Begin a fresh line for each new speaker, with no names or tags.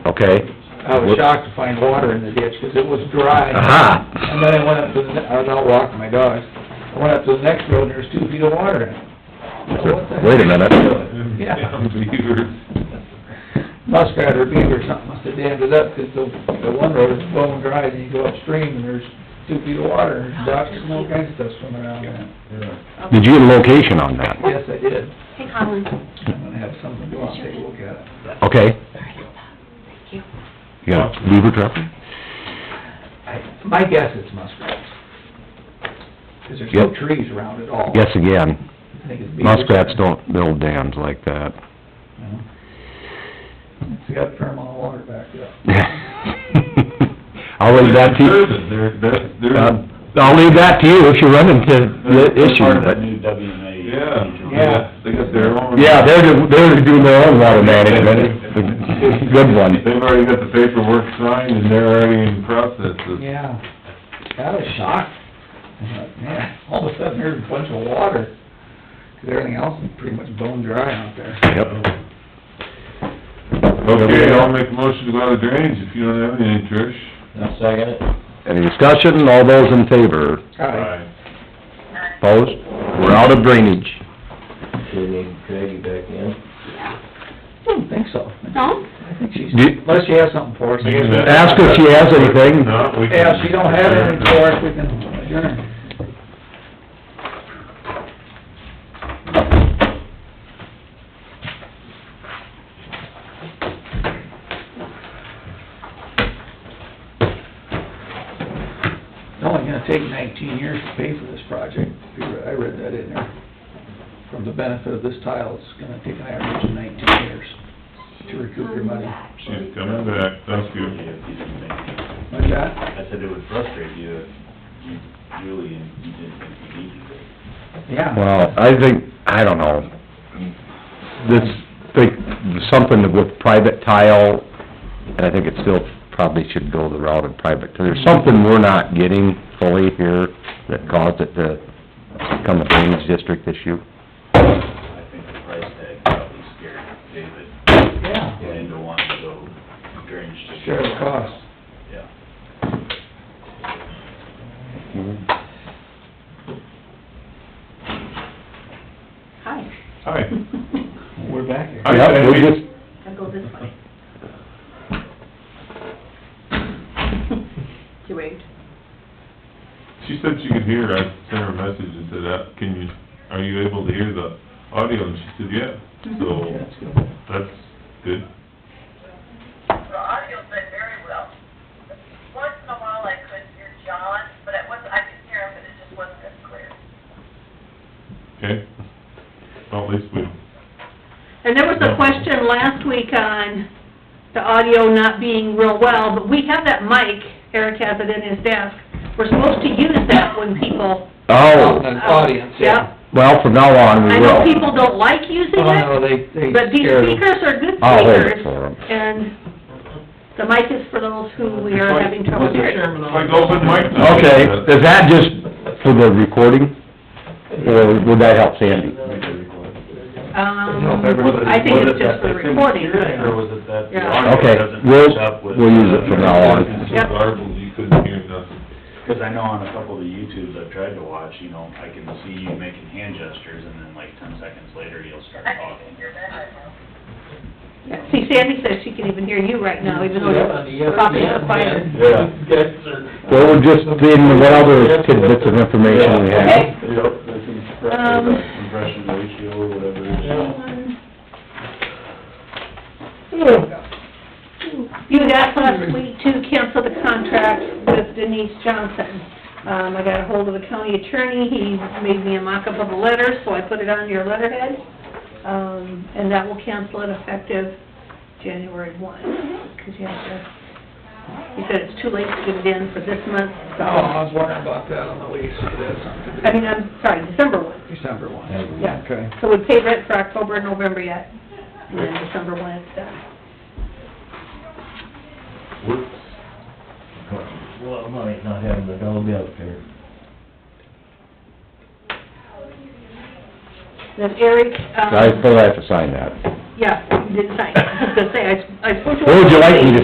okay?
I was shocked to find water in the ditch, 'cause it was dry.
Aha.
And then I went up to the, ne- I was out walking my dogs, I went up to the next road, and there was two feet of water in it. So what the heck?
Wait a minute.
Yeah, muskrat or beaver or something must have dammed it up, 'cause the, the one road is bone dry, and you go upstream, and there's two feet of water, and ducks and all kinds of stuff swimming around in it.
Did you get a location on that?
Yes, I did,
Hey, Colin.
I'm gonna have someone go out and take a look at it.
Okay,
Thank you.
you got a beaver trap?
I, my guess it's muskrats. 'Cause there's no
Yep.
trees around at all.
Yes, again,
I think it's beavers.
muskrats don't build dams like that.
No. It's got thermal water back up.
I'll leave Oh, that to you,
They're, they're,
uh,
they're.
I'll leave that to you if you run into the issue,
Part of
but,
that new WMA.
Yeah.
Yeah.
They got their own.
yeah, they're, they're doing their own water management, It's a good one.
They've already got the paperwork signed and they're already in process of.
Yeah, I was shocked. I thought, Man, all of a sudden there's a bunch of water, 'cause everything else is pretty much bone dry out there.
Yep.
Okay, I'll make a motion to go out of drainage if you don't have any, Trish.
Now, second it?
Any discussion, all those in favor,
Alright,
opposed? We're out of drainage.
Do we need Craigie back in?
I don't think so.
No?
I think she's,
Do-
unless she has something for us. I guess-
Ask her if she has anything.
No, we can-
Yeah, if she don't have anything for us, we can adjourn. It's only gonna take nineteen years to pay for this project. I read that in there. From the benefit of this tile, it's gonna take an average of nineteen years to recoup your money.
She's coming back, thank you.
If you didn't make it.
Like that?
I said it would frustrate you if you really, you didn't think you needed it.
Yeah.
Well, I think, I don't know, this, think, something with private tile, and I think it still probably should go the route of private, there's something we're not getting fully here that caused it to become a drainage district issue.
I think the price tag probably scared David
Yeah.
into wanting to go drainage. district.
Share the cost.
Yeah.
Hi.
Hi.
We're back here.
Hi,
Yep, we
Sandy.
just-
I'll go this way. You waved.
She said she could hear, I sent her a message and said, uh, can you, are you able to hear the audio? And she said, yeah,
Yeah,
so
that's good.
that's good.
The audio's been very well. Once in a while I could hear John, but it wasn't, I could hear him, but it just wasn't as clear.
Okay, well, at least we,
And there was a question last week on the audio not being real well, but we have that mic, Eric has it in his desk. We're supposed to use that when people... uh,
Oh,
An audience, yeah.
well, from now on, we
I
will.
know people don't like using
Oh, no,
it,
they, they
but these
scared 'em.
speakers are good
I'll hold it
speakers.
for 'em.
And the mic is for those who we are having trouble hearing.
like open mic night.
Okay, is that just for the recording, or would that help Sandy?
Um,
everybody-
Was it-
I think
was
it's
it
just
that
for
they
the
couldn't
recording.
hear it, Or was it that the
Yeah.
audio
Okay,
doesn't
we'll-
match up with?
we'll use it from now on.
It's so
Yep.
garbled, you couldn't hear nothing.
Cause I know on a couple of the YouTubes I've tried to watch, you know, I can see you making hand gestures and then like ten seconds later you'll start
I can
talking.
hear that right now.
Yeah, See, Sandy says she can even hear you right now, even though
uh,
you're probably on fire.
Yeah.
Well, we're just in the whatever tidbits of information we have.
Okay.
Yep, that's
Um,
impressive, compression ratio or whatever it is.
You had asked last week to cancel the contract with Denise Johnson. Um, I got ahold of the county attorney, he made me a mock-up of the letter, so I put it on your letterhead. Um, and that will cancel it effective January one, because you have to, he said it's too late to get it in for this month,
Oh,
so,
I was wondering about that on the lease, if that's something to do.
I mean, I'm sorry, December one.
December one.
Yeah.
Okay.
So we paid rent for October and November yet, and then December one it's done.
Whoops.
Well, might not having the dog out there.
Then Eric, um...
I still have to sign that.
Yeah, you didn't sign. I was gonna say, I, I spoke to...
What would you like me to